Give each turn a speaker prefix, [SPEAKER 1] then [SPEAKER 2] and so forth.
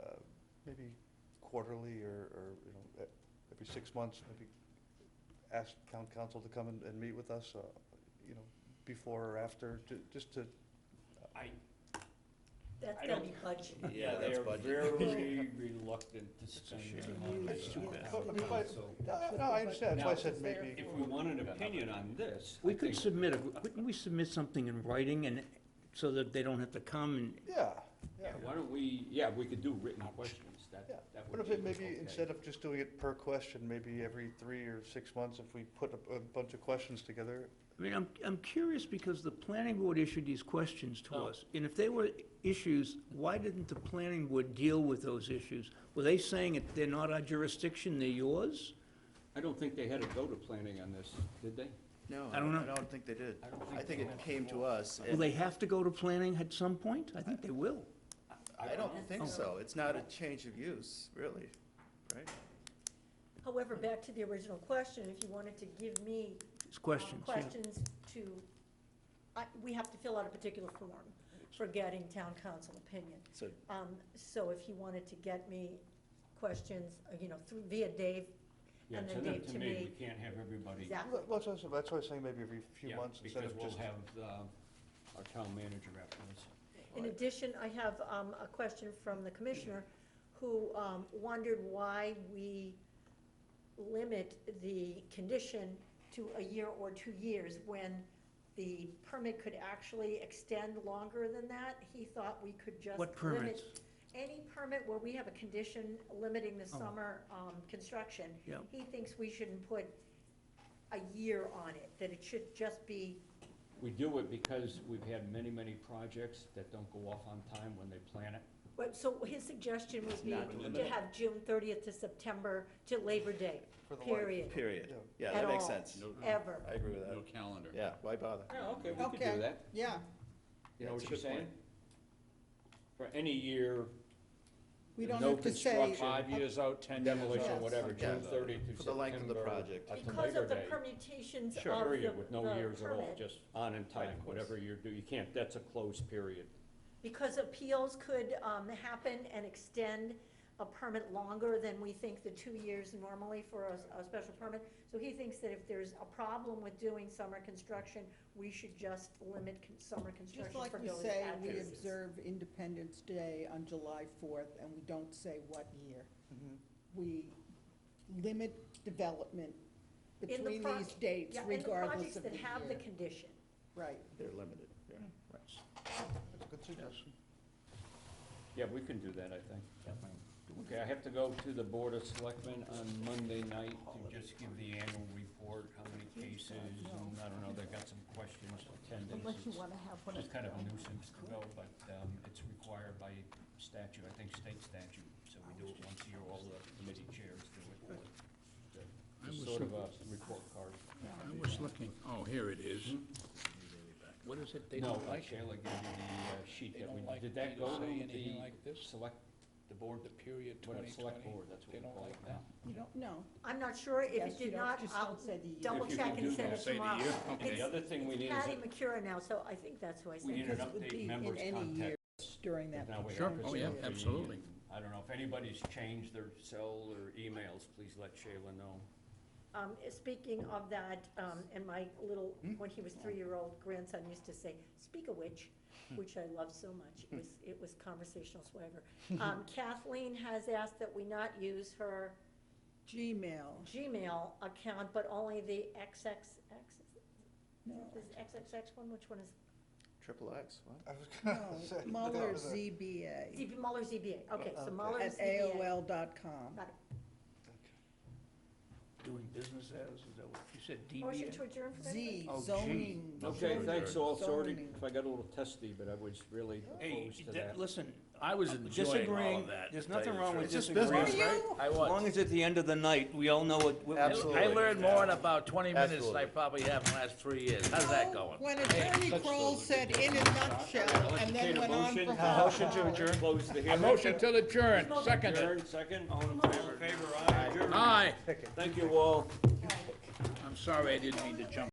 [SPEAKER 1] uh, quarterly or, or, you know, e- every six months, maybe ask town council to come and, and meet with us, uh, you know, before or after, ju- just to,
[SPEAKER 2] I,
[SPEAKER 3] That's
[SPEAKER 2] I
[SPEAKER 3] gotta
[SPEAKER 2] don't-
[SPEAKER 3] be budget.
[SPEAKER 2] yeah,
[SPEAKER 4] that's
[SPEAKER 2] they're
[SPEAKER 4] budget.
[SPEAKER 2] very reluctant to spend money
[SPEAKER 3] It's
[SPEAKER 1] I
[SPEAKER 3] too
[SPEAKER 2] on
[SPEAKER 3] bad.
[SPEAKER 2] town
[SPEAKER 1] mean, if I-
[SPEAKER 2] council.
[SPEAKER 1] no, no, I understand, that's why I said
[SPEAKER 3] Now,
[SPEAKER 1] maybe,
[SPEAKER 2] If we want an opinion on this, I
[SPEAKER 4] We could
[SPEAKER 2] think,
[SPEAKER 4] submit, a- wouldn't we submit something in writing and, so that they don't have to come and,
[SPEAKER 1] yeah, yeah.
[SPEAKER 2] yeah, why don't we, yeah, we could do written questions, that,
[SPEAKER 1] Yeah.
[SPEAKER 2] that
[SPEAKER 1] What
[SPEAKER 2] would
[SPEAKER 1] if
[SPEAKER 2] be
[SPEAKER 1] it
[SPEAKER 2] okay.
[SPEAKER 1] maybe, instead of just doing it per question, maybe every three or six months, if we put a, a bunch of questions together?
[SPEAKER 4] I mean, I'm, I'm curious because the planning board issued these questions to
[SPEAKER 2] No.
[SPEAKER 4] us. And if they were issues, why didn't the planning board deal with those issues? Were they saying that they're not our jurisdiction, they're yours?
[SPEAKER 2] I don't think they had a go to planning on this, did they?
[SPEAKER 5] No,
[SPEAKER 4] I don't know.
[SPEAKER 5] I don't think they did.
[SPEAKER 2] I don't
[SPEAKER 5] I
[SPEAKER 2] think
[SPEAKER 5] think
[SPEAKER 2] they
[SPEAKER 5] it
[SPEAKER 2] did.
[SPEAKER 5] came to us.
[SPEAKER 4] Will
[SPEAKER 5] and-
[SPEAKER 4] they have to go to planning at some point? I think they will.
[SPEAKER 5] I don't think
[SPEAKER 3] Oh.
[SPEAKER 5] so. It's not a change of use, really, right?
[SPEAKER 3] However, back to the original question, if you wanted to give me
[SPEAKER 4] It's
[SPEAKER 3] um,
[SPEAKER 4] questions, yeah.
[SPEAKER 3] questions to, I, we have to fill out a particular form for getting town council opinion.
[SPEAKER 5] So,
[SPEAKER 3] Um, so if you wanted to get me questions, uh, you know, through, via Dave,
[SPEAKER 2] Yeah,
[SPEAKER 3] and
[SPEAKER 2] send
[SPEAKER 3] then
[SPEAKER 2] them
[SPEAKER 3] Dave
[SPEAKER 2] to
[SPEAKER 3] to
[SPEAKER 2] me,
[SPEAKER 3] me.
[SPEAKER 2] we can't have everybody.
[SPEAKER 3] Exactly.
[SPEAKER 1] Well, That's what I said- that's why I was saying maybe every few
[SPEAKER 2] Yeah,
[SPEAKER 1] months instead of
[SPEAKER 2] Because
[SPEAKER 1] just.
[SPEAKER 2] we'll have, uh, our town manager after this.
[SPEAKER 3] In addition, I have um, a question from the commissioner who um, wondered why we limit the condition to a year or two years when the permit could actually extend longer than that. He thought we could just
[SPEAKER 4] What
[SPEAKER 3] limit
[SPEAKER 4] permits?
[SPEAKER 3] any permit where we have a condition limiting the
[SPEAKER 4] Oh.
[SPEAKER 3] summer um, construction.
[SPEAKER 4] Yeah.
[SPEAKER 3] He thinks we shouldn't put a year on it, that it should just be
[SPEAKER 2] We do it because we've had many, many projects that don't go off on time when they plan it.
[SPEAKER 3] But, so his suggestion would be
[SPEAKER 5] Not
[SPEAKER 3] to
[SPEAKER 5] limited.
[SPEAKER 3] have June thirtieth to September to Labor Day,
[SPEAKER 1] For the light.
[SPEAKER 3] period.
[SPEAKER 5] period. Mm-hmm. Yeah,
[SPEAKER 3] At
[SPEAKER 5] that makes
[SPEAKER 3] all,
[SPEAKER 5] sense.
[SPEAKER 3] Ever.
[SPEAKER 5] I agree with
[SPEAKER 6] No
[SPEAKER 5] that.
[SPEAKER 6] calendar.
[SPEAKER 5] Yeah, why bother?
[SPEAKER 2] Yeah, okay, we could
[SPEAKER 7] Okay.
[SPEAKER 2] do that.
[SPEAKER 7] Yeah,
[SPEAKER 2] You know
[SPEAKER 5] That's
[SPEAKER 2] what you're
[SPEAKER 5] a good
[SPEAKER 2] saying?
[SPEAKER 5] point.
[SPEAKER 2] For any year,
[SPEAKER 7] we don't
[SPEAKER 2] no
[SPEAKER 7] have to say.
[SPEAKER 2] construction, five years out, ten years
[SPEAKER 7] Demolition.
[SPEAKER 2] out, whatever,
[SPEAKER 5] Yeah.
[SPEAKER 2] June thirty to September.
[SPEAKER 5] For the length of the project.
[SPEAKER 2] uh, to
[SPEAKER 3] Because of
[SPEAKER 2] Labor
[SPEAKER 3] the
[SPEAKER 2] Day.
[SPEAKER 3] permutations of the,
[SPEAKER 2] Sure, period, with no
[SPEAKER 3] the
[SPEAKER 2] years at all,
[SPEAKER 3] permit.
[SPEAKER 2] just on and
[SPEAKER 5] Right,
[SPEAKER 2] time,
[SPEAKER 5] of course.
[SPEAKER 2] whatever you're doing, you can't, that's a closed period.
[SPEAKER 3] Because appeals could, um, happen and extend a permit longer than we think the two years normally for a, s- a special permit. So he thinks that if there's a problem with doing summer construction, we should just limit con- summer
[SPEAKER 7] Just
[SPEAKER 3] construction
[SPEAKER 7] like
[SPEAKER 3] for
[SPEAKER 7] we
[SPEAKER 3] those
[SPEAKER 7] say, we
[SPEAKER 3] addresses.
[SPEAKER 7] observe Independence Day on July fourth, and we don't say what year. We limit development
[SPEAKER 3] In the
[SPEAKER 7] between
[SPEAKER 3] pro-
[SPEAKER 7] these dates
[SPEAKER 3] Yeah, and the
[SPEAKER 7] regardless of the
[SPEAKER 3] projects that have the
[SPEAKER 7] year.
[SPEAKER 3] condition.
[SPEAKER 7] Right.
[SPEAKER 5] They're limited, yeah.
[SPEAKER 2] Hmm.
[SPEAKER 1] That's a good suggestion.
[SPEAKER 2] Yeah, we can do that, I think. Okay, I have to go to the Board of Selectmen on Monday night to just give the annual report, how many cases, and I don't know, they've got some questions, attendance.
[SPEAKER 7] Unless you
[SPEAKER 2] It's-
[SPEAKER 7] wanna have one.
[SPEAKER 2] It's kind of a nuisance to go, but um, it's required by statute, I think state statute, so we do it once a year, all the committee chairs do it. It's sort of a report card. Hmm?
[SPEAKER 6] I was looking, oh, here it is.
[SPEAKER 4] What is it they
[SPEAKER 2] No,
[SPEAKER 4] don't like?
[SPEAKER 2] Shayla gave you the uh, sheet
[SPEAKER 6] They
[SPEAKER 2] that
[SPEAKER 6] don't
[SPEAKER 2] we,
[SPEAKER 6] like me
[SPEAKER 2] did
[SPEAKER 6] to
[SPEAKER 2] that go to
[SPEAKER 6] say anything like
[SPEAKER 2] the
[SPEAKER 6] this?
[SPEAKER 2] select, the board,
[SPEAKER 6] The period
[SPEAKER 2] what,
[SPEAKER 6] twenty
[SPEAKER 2] a select
[SPEAKER 6] twenty.
[SPEAKER 2] board, that's what
[SPEAKER 6] They
[SPEAKER 2] we
[SPEAKER 6] don't
[SPEAKER 2] call it
[SPEAKER 6] like
[SPEAKER 2] now.
[SPEAKER 6] that.
[SPEAKER 7] You don't know.
[SPEAKER 3] I'm not sure if
[SPEAKER 7] Yes,
[SPEAKER 3] it
[SPEAKER 7] you
[SPEAKER 3] did
[SPEAKER 7] don't-
[SPEAKER 3] not,
[SPEAKER 7] just
[SPEAKER 3] I'll
[SPEAKER 7] don't say the E. year.
[SPEAKER 3] double
[SPEAKER 2] If you
[SPEAKER 3] check
[SPEAKER 2] can do
[SPEAKER 3] and send
[SPEAKER 2] that.
[SPEAKER 3] it
[SPEAKER 6] Say the
[SPEAKER 3] tomorrow.
[SPEAKER 6] year? Okay.
[SPEAKER 2] The other thing we need is,
[SPEAKER 3] Patty
[SPEAKER 2] a-
[SPEAKER 3] McCura now, so I think that's who I
[SPEAKER 2] we
[SPEAKER 3] sent
[SPEAKER 2] need an
[SPEAKER 3] it.
[SPEAKER 7] Because it would be
[SPEAKER 2] update
[SPEAKER 7] in
[SPEAKER 2] members
[SPEAKER 7] any year
[SPEAKER 2] contact.
[SPEAKER 7] During that.
[SPEAKER 2] Now we have
[SPEAKER 6] Sure.
[SPEAKER 2] to
[SPEAKER 6] Oh, yeah,
[SPEAKER 2] see if the-
[SPEAKER 6] absolutely.
[SPEAKER 2] I don't know, if anybody's changed their cell or emails, please let Shayla know.
[SPEAKER 3] Um, speaking of that, um, and my little,
[SPEAKER 2] Hmm?
[SPEAKER 3] when he was three-year-old grandson used to say, speak of which,
[SPEAKER 2] Hmm.
[SPEAKER 3] which I love so much, it was, it was conversational swagger. Um, Kathleen has asked that we not use her
[SPEAKER 2] Oh,
[SPEAKER 7] Gmail,
[SPEAKER 3] Gmail account, but only the XXX,
[SPEAKER 7] no,
[SPEAKER 3] this XXX one, which one is?
[SPEAKER 5] Triple X, what?
[SPEAKER 1] I was gonna say.
[SPEAKER 7] no, Mueller ZBA
[SPEAKER 3] ZB, Muller ZBA, okay,
[SPEAKER 2] Oh,
[SPEAKER 3] so
[SPEAKER 1] Okay.
[SPEAKER 3] Muller
[SPEAKER 7] at
[SPEAKER 3] ZBA.
[SPEAKER 7] AOL dot com.
[SPEAKER 3] Got it.
[SPEAKER 4] Doing business as, is that what you said,
[SPEAKER 3] Motion
[SPEAKER 4] DBA?
[SPEAKER 3] to adjourn for that?
[SPEAKER 7] Z,
[SPEAKER 4] Oh, G.
[SPEAKER 7] zoning.
[SPEAKER 2] Okay,
[SPEAKER 7] zoning,
[SPEAKER 2] thanks, all sorted,
[SPEAKER 7] zoning.
[SPEAKER 2] if I got a little testy, but I was really
[SPEAKER 4] Hey,
[SPEAKER 2] opposed to
[SPEAKER 4] that-
[SPEAKER 2] that.
[SPEAKER 4] listen,
[SPEAKER 6] I was enjoying all
[SPEAKER 4] disagreeing,
[SPEAKER 6] of that.
[SPEAKER 4] there's
[SPEAKER 6] to tell you
[SPEAKER 4] nothing
[SPEAKER 6] the
[SPEAKER 4] wrong with
[SPEAKER 6] truth.
[SPEAKER 5] just
[SPEAKER 4] disagreeing, right?
[SPEAKER 5] business,
[SPEAKER 6] I
[SPEAKER 4] As long
[SPEAKER 6] was.
[SPEAKER 4] as at the end of the night, we all know what. what-
[SPEAKER 6] I
[SPEAKER 5] Absolutely.
[SPEAKER 6] learned more in about twenty minutes than I
[SPEAKER 5] Absolutely.
[SPEAKER 6] probably have in the last three years. How's that going?
[SPEAKER 7] When Attorney Kroll said in a nutshell and then went on for half an
[SPEAKER 2] Motion to
[SPEAKER 7] hour.
[SPEAKER 2] adjourn. Close the
[SPEAKER 6] A
[SPEAKER 2] hearing.
[SPEAKER 6] motion to adjourn, second.
[SPEAKER 2] Adjourn, second. All in favor? Favor, aye. Adjourn.
[SPEAKER 6] Aye,
[SPEAKER 2] Thank you all.
[SPEAKER 6] I'm sorry, I didn't mean to jump.